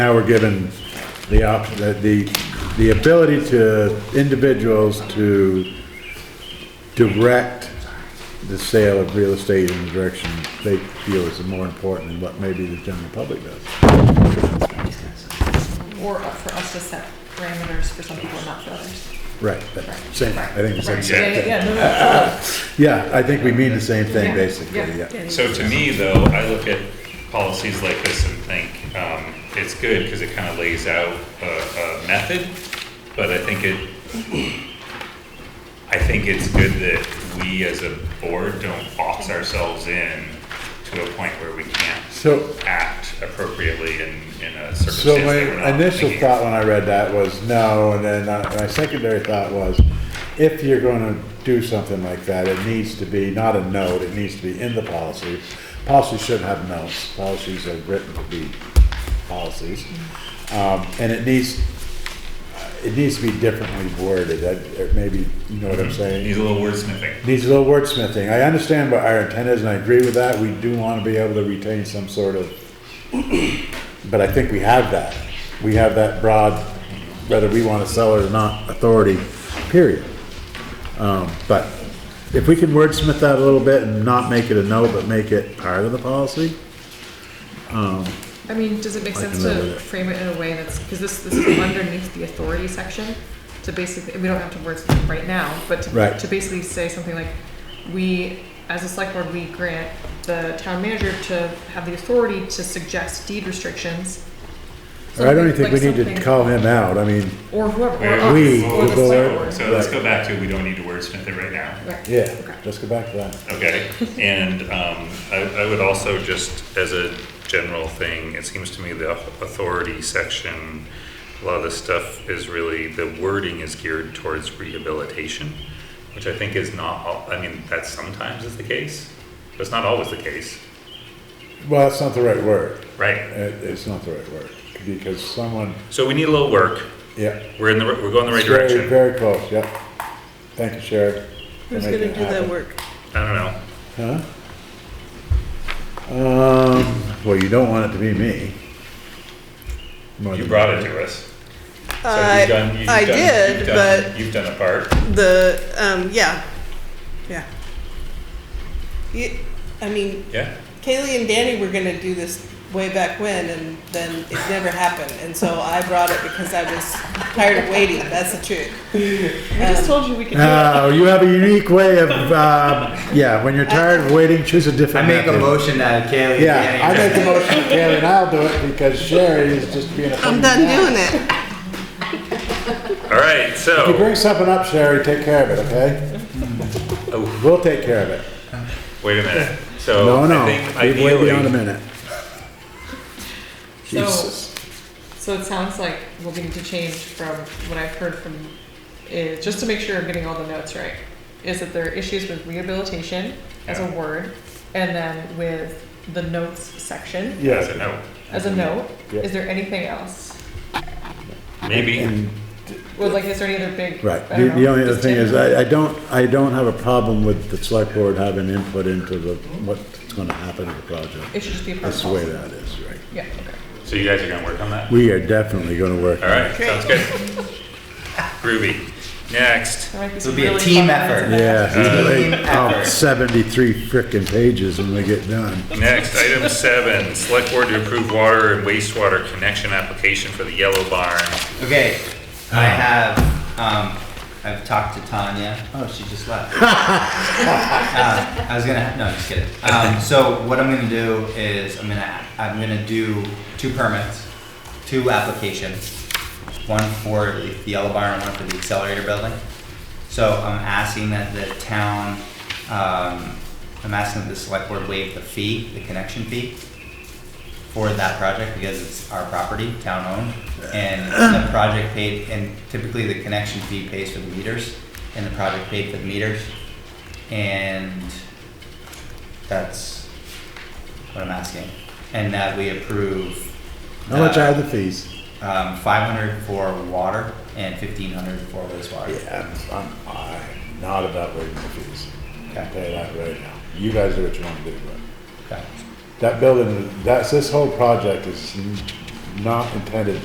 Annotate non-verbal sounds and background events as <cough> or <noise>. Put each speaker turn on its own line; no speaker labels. Now we're given the option, the, the ability to individuals to direct the sale of real estate in the direction they feel is more important than what maybe the general public does.
Or for us to set parameters for some people and not for others.
Right, but same, I think it's the
Right,
same
yeah, yeah,
thing.
yeah, no, no.
Yeah, I think we mean the same thing,
Yeah,
basically,
yeah.
yeah.
So to me, though, I look at policies like this and think, um, it's good because it kind of lays out a, a method, but I think it, I think it's good that we as a board don't box ourselves in to a point where we can't
So,
act appropriately in, in a
So
circumstance that we're
my
not
initial
thinking.
thought when I read that was no, and then uh, my secondary thought was, if you're gonna do something like that, it needs to be not a note, it needs to be in the policy. Policies shouldn't have notes, policies are written to be policies. Um, and it needs, it needs to be differently worded, I- or maybe, you know what I'm saying?
Needs a little wordsmithing.
needs a little wordsmithing. I understand what our intent is, and I agree with that. We do want to be able to retain some sort of, <clears throat> but I think we have that. We have that broad, whether we want to sell it or not, authority, period. Um, but if we can wordsmith that a little bit and not make it a no, but make it part of the policy,
I mean, does it make
I can
sense
live
to
with it.
frame it in a way that's, because this, this is underneath the authority section? To basically, we don't have to words right now, but to,
Right.
to basically say something like, we, as a select board, we grant the town manager to have the authority to suggest deed restrictions.
or I don't even
Something-
think we
like
need to
something-
call him out. I mean,
Or whoever, or
Where-
us,
We,
or
the
the select
board.
board.
So let's go back to, we don't need to wordsmith it right now.
Right.
yeah,
Okay.
let's go back to that.
Okay, and um, I I would also just, as a general thing, it seems to me the authority section, a lot of this stuff is really, the wording is geared towards rehabilitation, which I think is not, al- I mean, that sometimes is the case, but it's not always the case,
Well, that's not the right word.
right?
It- It's not the right word, because someone,
So we need a little work,
yeah.
we're in the, we're going the right
It's very-
direction.
Very close, yep. Thank you, Sherry. for
Who's
making
gonna
it
do that
happen.
work?
I don't know,
Huh? Um, well, you don't want it to be me. More
you
than-
brought it to us. So you've
I-
done- you've
Uh, I
done-
did,
you've done- You've done a part,
The, um, yeah, yeah. You, I mean,
yeah?
Kaylee and Danny were gonna do this way back when, and then it never happened, and so I brought it because I was tired of waiting, that's the truth.
We just told you we could do it.
Oh, you have a unique way of, um, yeah, when you're tired of waiting, choose a
I
different
make a
method.
motion that Kaylee.
Yeah, I
Danny-
make the motion, Karen, and I'll do it because Sherry is just being a pain
I'm
in
done
the ass.
doing it.
All right, so.
If you bring something up, Sherry, take care of it, okay?
Oh.
We'll take care of it.
Wait a minute. So
No,
Oh, I
no,
think
we've waited on a
ideally,
minute. Jesus.
So it sounds like we'll need to change from what I've heard from, is, just to make sure I'm getting all the notes right, is that there are issues with rehabilitation as a
Yeah.
word, and then with the notes section
as
Yeah,
a note,
as a note.
Mm-hmm. Yeah.
Is there anything else?
maybe.
and,
Or like, is there any other big?
right,
I
the,
don't
the
know,
only other
just
thing is,
general-
I, I don't, I don't have a problem with the select board having input into the, what's gonna happen to the project.
It should just be a part
That's
of
the way
policy.
that is, right?
Yeah, okay.
So you guys are gonna work on that?
We are definitely gonna work.
All right, sounds good. Groovy. Next.
There might be
This will
some
be a
really fun
team
ones
effort.
in that.
Yeah,
Team
oh,
effort.
seventy-three frickin' pages when we get done.
Next, item seven, select board to approve water and wastewater connection application for the yellow barn.
<laughs> Okay, I have, um, I've talked to Tanya. Oh, she
<laughs>
just left. Uh, I was gonna, no, just kidding. Um, so what I'm gonna do is I'm gonna, I'm gonna do two permits, two applications. One for the yellow barn, and one for the accelerator building. So I'm asking that the town, um, I'm asking that the select board waive the fee, the connection fee for that project because it's our property, town owned. And the project paid, and typically the connection fee pays for the meters, and the project paid for the meters. And that's what I'm asking. And that we approve.
How much
the,
are the fees?
Um, five hundred for water and fifteen hundred for wastewater.
Yeah, I'm, I'm not about waiving the fees.
Okay.
I'll tell you that right now. You guys do what you wanna do, but.
Okay.
That building, that's, this whole project is not intended